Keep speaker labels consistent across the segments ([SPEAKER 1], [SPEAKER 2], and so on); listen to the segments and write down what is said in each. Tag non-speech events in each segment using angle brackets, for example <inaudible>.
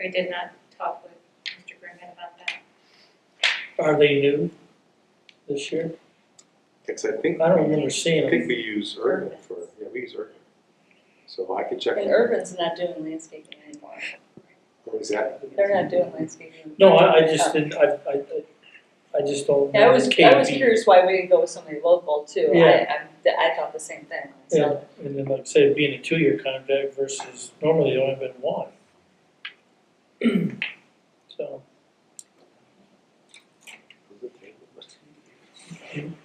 [SPEAKER 1] I did not talk with Mr. Grimmett about that.
[SPEAKER 2] Are they new this year?
[SPEAKER 3] Because I think,
[SPEAKER 2] I
[SPEAKER 3] I
[SPEAKER 2] don't remember seeing
[SPEAKER 3] think
[SPEAKER 2] them.
[SPEAKER 3] we use Urban for, yeah, we use Urban. So I could check.
[SPEAKER 4] And Urban's not doing landscaping anymore.
[SPEAKER 3] What was that?
[SPEAKER 4] They're not doing landscaping.
[SPEAKER 2] No, I, I just didn't, I, I, I- I just don't.
[SPEAKER 4] Yeah, I was, I was
[SPEAKER 2] KP.
[SPEAKER 4] curious why we didn't go with somebody local too. I,
[SPEAKER 2] Yeah.
[SPEAKER 4] I, I thought the same thing,
[SPEAKER 2] Yeah,
[SPEAKER 4] so.
[SPEAKER 2] and then like I said, it'd be in a two-year contract versus normally they only been one. <clears throat> So,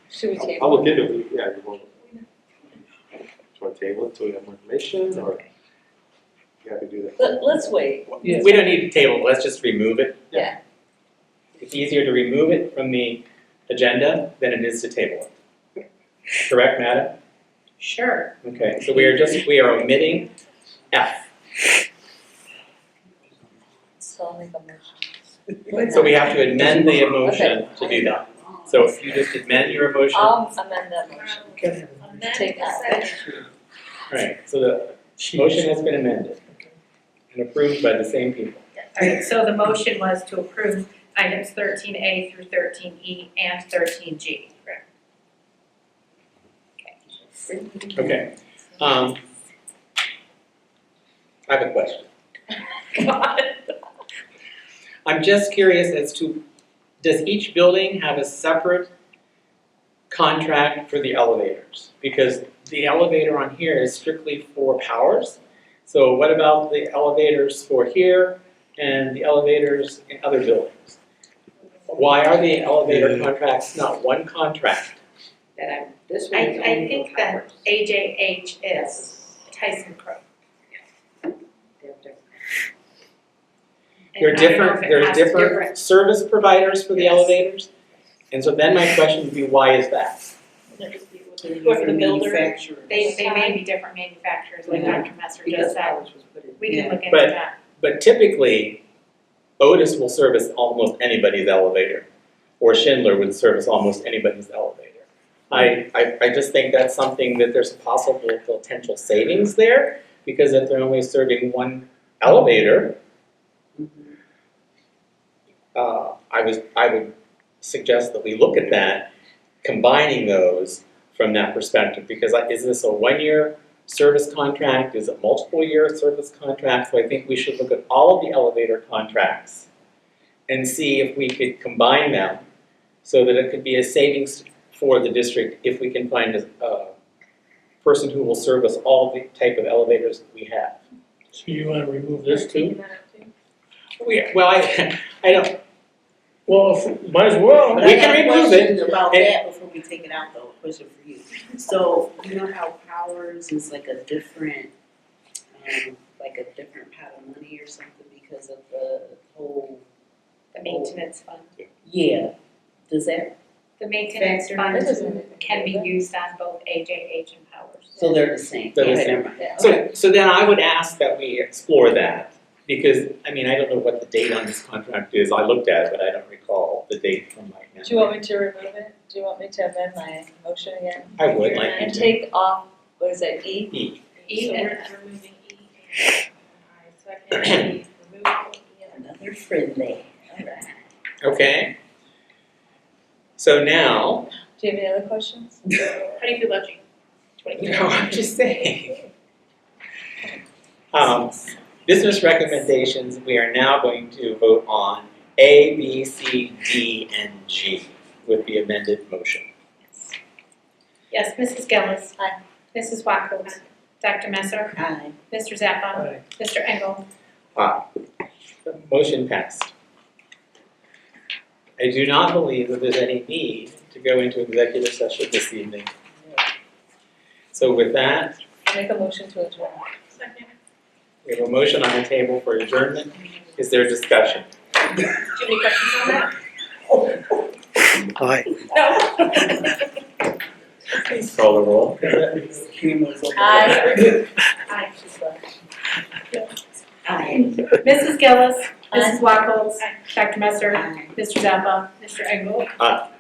[SPEAKER 4] Should we
[SPEAKER 3] I'll-
[SPEAKER 4] table?
[SPEAKER 3] I'll look into it, yeah, you want. Do you want to table it till we have more information or? You happy to do that?
[SPEAKER 4] Let, let's wait.
[SPEAKER 2] Yeah.
[SPEAKER 5] We don't need to table, let's just remove it.
[SPEAKER 4] Yeah.
[SPEAKER 5] It's easier to remove it from the agenda than it is to table it. Correct, Madam?
[SPEAKER 1] Sure.
[SPEAKER 5] Okay, so we are just, we are omitting F.
[SPEAKER 4] So I'll make a motion.
[SPEAKER 5] So we have to amend the motion to do that. So if you just amend your motion,
[SPEAKER 4] I'll amend that motion.
[SPEAKER 2] Okay.
[SPEAKER 1] Um, On that,
[SPEAKER 4] Take that.
[SPEAKER 1] second,
[SPEAKER 5] right, so the
[SPEAKER 2] she-
[SPEAKER 5] motion has been amended and approved by the same people.
[SPEAKER 1] all right, so the motion was to approve items thirteen A through thirteen E and thirteen G. Correct.
[SPEAKER 5] Okay, um. I have a question.
[SPEAKER 1] God.
[SPEAKER 5] I'm just curious as to, does each building have a separate contract for the elevators? Because the elevator on here is strictly for powers. So what about the elevators for here and the elevators in other buildings? Why are the elevator contracts not one contract?
[SPEAKER 6] that I'm, this
[SPEAKER 1] I,
[SPEAKER 6] one's only
[SPEAKER 1] I think
[SPEAKER 6] for
[SPEAKER 1] that
[SPEAKER 6] powers.
[SPEAKER 1] AJH is Tyson Crow.
[SPEAKER 6] They're different.
[SPEAKER 1] And
[SPEAKER 5] There
[SPEAKER 1] I don't
[SPEAKER 5] are
[SPEAKER 1] know
[SPEAKER 5] different,
[SPEAKER 1] if it
[SPEAKER 5] there are
[SPEAKER 1] has
[SPEAKER 5] different service providers for the
[SPEAKER 1] Yes.
[SPEAKER 5] elevators. And so then my question would be, why is that?
[SPEAKER 1] Or the builder.
[SPEAKER 6] Manufacturers.
[SPEAKER 1] They, they may be different manufacturers, like
[SPEAKER 6] Yeah.
[SPEAKER 1] Dr. Messer
[SPEAKER 6] Because
[SPEAKER 1] just said,
[SPEAKER 6] powers was put in.
[SPEAKER 1] we can look into
[SPEAKER 5] But-
[SPEAKER 1] that.
[SPEAKER 5] But typically, Otis will service almost anybody's elevator, or Schindler would service almost anybody's elevator. I, I, I just think that's something that there's possible potential savings there, because if they're only serving one elevator, uh, I was, I would suggest that we look at that, combining those from that perspective, because I- is this a one-year service contract, is it multiple-year service contract? So I think we should look at all of the elevator contracts and see if we could combine them so that it could be a savings for the district if we can find a, a person who will service all the type of elevators that we have.
[SPEAKER 2] So you wanna remove this too?
[SPEAKER 5] We, well, I, I don't,
[SPEAKER 2] Well, if- might as well.
[SPEAKER 6] But
[SPEAKER 5] We
[SPEAKER 6] I
[SPEAKER 5] can
[SPEAKER 6] got a
[SPEAKER 5] remove
[SPEAKER 6] question About
[SPEAKER 5] And-
[SPEAKER 6] that before we take it out though, a question
[SPEAKER 1] <laughs>
[SPEAKER 6] for you. So you know how powers is like a different, um, like a different pot of money or something because of the whole,
[SPEAKER 1] The maintenance fund,
[SPEAKER 6] yeah. Does that,
[SPEAKER 1] the maintenance
[SPEAKER 6] Factor.
[SPEAKER 4] That
[SPEAKER 1] fund
[SPEAKER 4] doesn't make
[SPEAKER 1] can be
[SPEAKER 4] sense.
[SPEAKER 1] used on both AJH and Powers.
[SPEAKER 6] so they're the same?
[SPEAKER 5] They're the
[SPEAKER 6] Okay,
[SPEAKER 5] same.
[SPEAKER 6] never mind.
[SPEAKER 4] Yeah.
[SPEAKER 5] So, so then I would ask that we explore that, because, I mean, I don't know what the date on this contract is, I looked at it, but I don't recall the date from my memory.
[SPEAKER 4] Do you want me to remove it? Do you want me to amend my motion again?
[SPEAKER 5] I would like you
[SPEAKER 4] And
[SPEAKER 5] to.
[SPEAKER 4] take off, what is that, E?
[SPEAKER 5] E.
[SPEAKER 1] E
[SPEAKER 4] So
[SPEAKER 1] and
[SPEAKER 4] we're-
[SPEAKER 1] F.
[SPEAKER 2] <clears throat>
[SPEAKER 1] Second,
[SPEAKER 6] Another friendly, alright.
[SPEAKER 5] Okay. So now, <laughs>
[SPEAKER 4] Do you have any other questions?
[SPEAKER 1] How do you feel about G?
[SPEAKER 5] no, I'm just saying. <laughs> Um, business recommendations, we are now going to vote on A, B, C, D, and G with the amended motion.
[SPEAKER 1] Yes, Mrs. Gillis.
[SPEAKER 4] Aye.
[SPEAKER 1] Mrs. Wackels. Dr. Messer.
[SPEAKER 6] Hi.
[SPEAKER 1] Mr. Zappa.
[SPEAKER 2] Aye.
[SPEAKER 1] Mr. Engel.
[SPEAKER 5] Aye. Motion passed. I do not believe that there's any need to go into executive session this evening. So with that,
[SPEAKER 4] I Make a motion to adjourn.
[SPEAKER 1] Second.
[SPEAKER 5] we have a motion on the table for adjournment. Is there discussion?
[SPEAKER 1] Do you have any questions on that?
[SPEAKER 2] <laughs> Aye.
[SPEAKER 5] Please call the roll.
[SPEAKER 4] Aye.
[SPEAKER 1] Aye.
[SPEAKER 6] Hi.
[SPEAKER 1] Mrs. Gillis.
[SPEAKER 4] Aye.
[SPEAKER 1] Mrs. Wackels. Dr. Messer.
[SPEAKER 6] Hi.
[SPEAKER 1] Mr. Zappa. Mr. Engel.
[SPEAKER 5] Aye.